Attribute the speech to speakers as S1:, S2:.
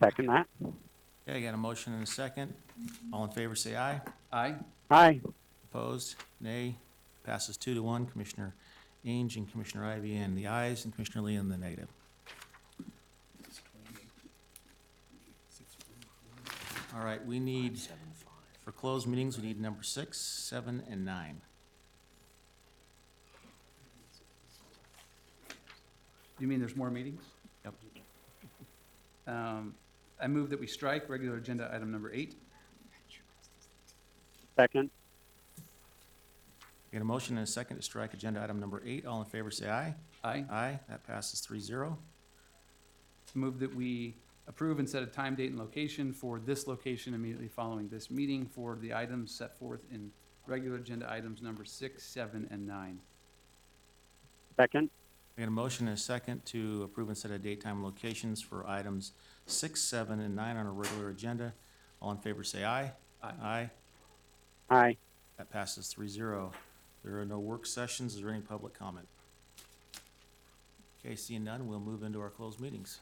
S1: second that.
S2: Okay, I got a motion and a second. All in favor, say aye.
S3: Aye.
S1: Aye.
S2: Opposed? Nay. Passes two to one. Commissioner Ainge and Commissioner Ivy in the ayes, and Commissioner Lee in the negative. All right, we need, for closed meetings, we need number six, seven, and nine.
S3: You mean there's more meetings?
S2: Yep.
S3: Um, I move that we strike regular agenda item number eight.
S1: Second.
S2: Got a motion and a second to strike agenda item number eight. All in favor, say aye.
S3: Aye.
S2: Aye. That passes three zero.
S3: Move that we approve and set a time, date, and location for this location immediately following this meeting for the items set forth in regular agenda items number six, seven, and nine.
S1: Second.
S2: We got a motion and a second to approve and set a date, time, and locations for items six, seven, and nine on our regular agenda. All in favor, say aye.
S3: Aye.
S2: Aye.
S1: Aye.
S2: That passes three zero. There are no work sessions. Is there any public comment? Okay, seeing none, we'll move into our closed meetings.